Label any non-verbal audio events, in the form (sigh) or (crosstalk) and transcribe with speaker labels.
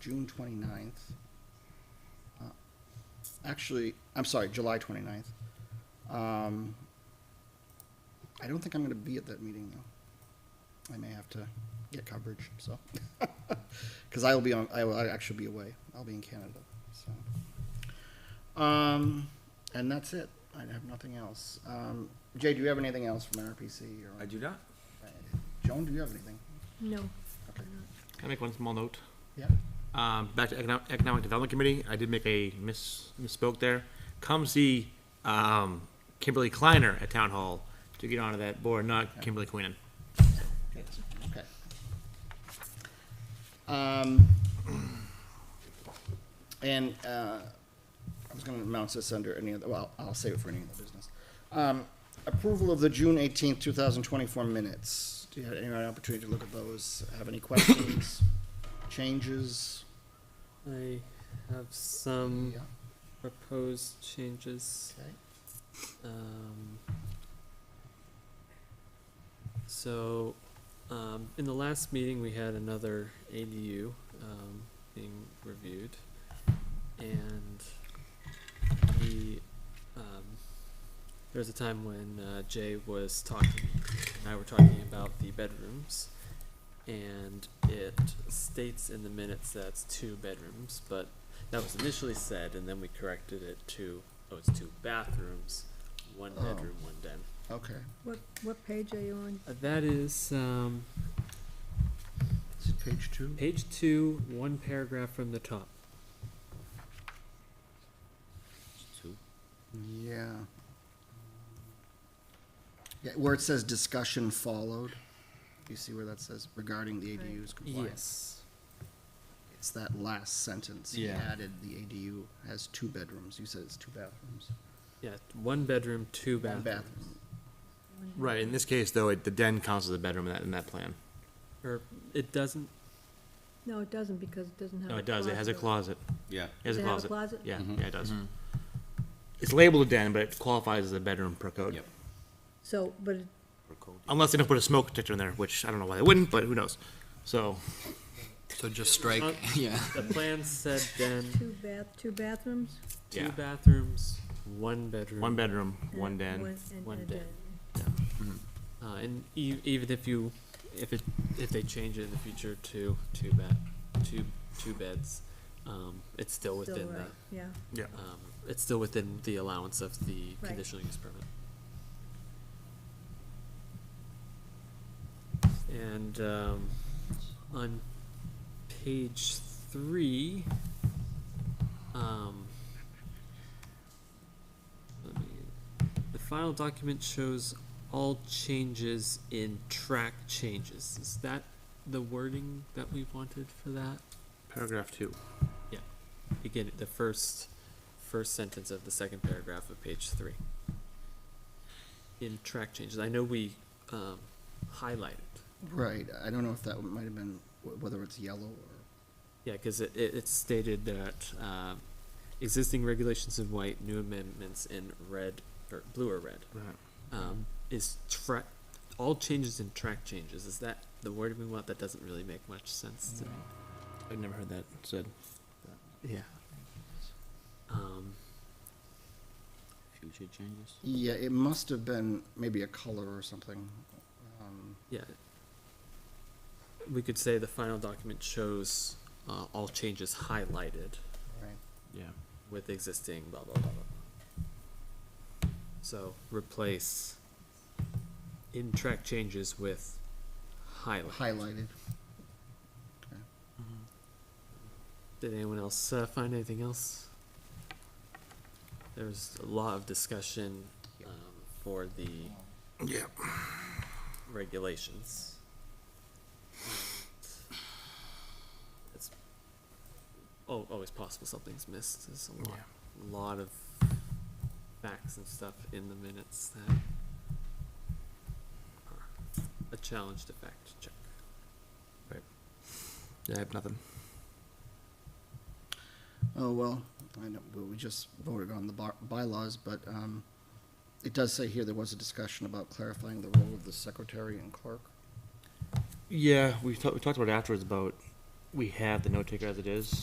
Speaker 1: June 29th. Uh, Actually, I'm sorry, July 29th. Um, I don't think I'm going to be at that meeting, though. I may have to get coverage, so. (laughs) Because I will be on, I will actually be away. I'll be in Canada, so. Um, and that's it. I have nothing else. Um, Jay, do you have anything else from NRPC or?
Speaker 2: I do not.
Speaker 1: Joan, do you have anything?
Speaker 3: No.
Speaker 1: Okay.
Speaker 4: Can I make one small note?
Speaker 1: Yeah,
Speaker 4: Um, back to economic, economic development committee, I did make a miss, misspoke there. Come see, um, Kimberly Kleiner at town hall to get onto that board, not Kimberly Queenan.
Speaker 1: okay. Um, and, uh, I was gonna announce this under any other, well, I'll save it for any other business. Um, approval of the June eighteenth, two thousand twenty-four minutes. Do you have any opportunity to look at those? Have any questions, changes?
Speaker 5: I have some
Speaker 1: Yeah,
Speaker 5: proposed changes.
Speaker 1: okay.
Speaker 5: Um, so, um, in the last meeting, we had another ADU um, being reviewed, and we um, there was a time when uh, Jay was talking, and I were talking about the bedrooms, and it states in the minutes that's two bedrooms, but that was initially said, and then we corrected it to oh, it's two bathrooms, one
Speaker 1: Oh.
Speaker 5: bedroom, one den.
Speaker 1: Okay,
Speaker 3: What, what page are you on?
Speaker 5: Uh, that is um,
Speaker 1: is it page two?
Speaker 5: page two, one paragraph from the top.
Speaker 2: Two.
Speaker 1: Yeah. Yeah, where it says discussion followed, you see where that says regarding the ADU's compliance?
Speaker 5: Yes.
Speaker 1: It's that last sentence.
Speaker 5: Yeah.
Speaker 1: He added the ADU has two bedrooms. You said it's two bathrooms.
Speaker 5: Yeah, one bedroom, two
Speaker 1: One
Speaker 5: bathrooms.
Speaker 1: bathroom.
Speaker 4: Right, in this case, though, it, the den counts as a bedroom in that, in that plan.
Speaker 5: Or it doesn't.
Speaker 3: No, it doesn't because it doesn't have a
Speaker 4: No,
Speaker 3: closet.
Speaker 4: it does, it has a closet,
Speaker 2: Yeah.
Speaker 4: it has a
Speaker 3: Does it have a
Speaker 4: closet.
Speaker 3: closet?
Speaker 4: Yeah,
Speaker 2: Mhm.
Speaker 4: yeah, it does. It's labeled a den, but it qualifies as a bedroom per code.
Speaker 2: Yep.
Speaker 3: So, but it-
Speaker 4: Unless they don't put a smoke detector in there, which I don't know why they wouldn't, but who knows? So,
Speaker 2: So just strike.
Speaker 5: Uh,
Speaker 2: yeah.
Speaker 5: The plan said then
Speaker 3: (laughs) two bath, two bathrooms?
Speaker 5: two
Speaker 4: Yeah.
Speaker 5: bathrooms, one bedroom.
Speaker 4: one bedroom,
Speaker 3: and
Speaker 4: one
Speaker 3: a-
Speaker 4: den.
Speaker 3: and
Speaker 5: one
Speaker 3: a
Speaker 5: den. Uh, and e- even if you, if it, if they change it in the future to two bed, two, two beds, um, it's still
Speaker 3: Still
Speaker 5: within
Speaker 3: right,
Speaker 5: the,
Speaker 3: Yeah,
Speaker 4: Yeah.
Speaker 5: um, it's still within the allowance of the
Speaker 3: Right.
Speaker 5: conditional use permit. And, um, on page three, um, let me, the final document shows all changes in track changes. Is that the wording that we wanted for that?
Speaker 4: Paragraph two.
Speaker 5: Again, the first, first sentence of the second paragraph of page three. In track changes, I know we, um, highlighted,
Speaker 1: Right. I don't know if that might have been, wh- whether it's yellow or,
Speaker 5: yeah, cause it, it, it stated that, um, existing regulations in white, new amendments in red, or blue or red.
Speaker 4: Right.
Speaker 5: Um, is track, all changes in track changes, is that the word we want? That doesn't really make much sense to me.
Speaker 4: I've never heard that said.
Speaker 5: Yeah. Um,
Speaker 2: Future changes.
Speaker 1: yeah, it must have been maybe a color or something. Um,
Speaker 5: Yeah. We could say the final document shows uh, all changes highlighted
Speaker 1: right.
Speaker 4: Yeah.
Speaker 5: with existing blah blah blah blah. So replace in track changes with highlight.
Speaker 1: Highlighted.
Speaker 5: Did anyone else uh, find anything else? There was a lot of discussion
Speaker 1: Yeah.
Speaker 5: um, for the
Speaker 4: Yeah.
Speaker 5: regulations. It's al- always possible something's missed. There's a lot, lot of facts and stuff in the minutes that are a challenge to fact check.
Speaker 4: I have nothing.
Speaker 1: Oh, well, I know, but we just voted on the bar- bylaws, but um, it does say here there was a discussion about clarifying the role of the secretary and clerk.
Speaker 4: Yeah, we talked, we talked about it afterwards about we have the note taker as it is.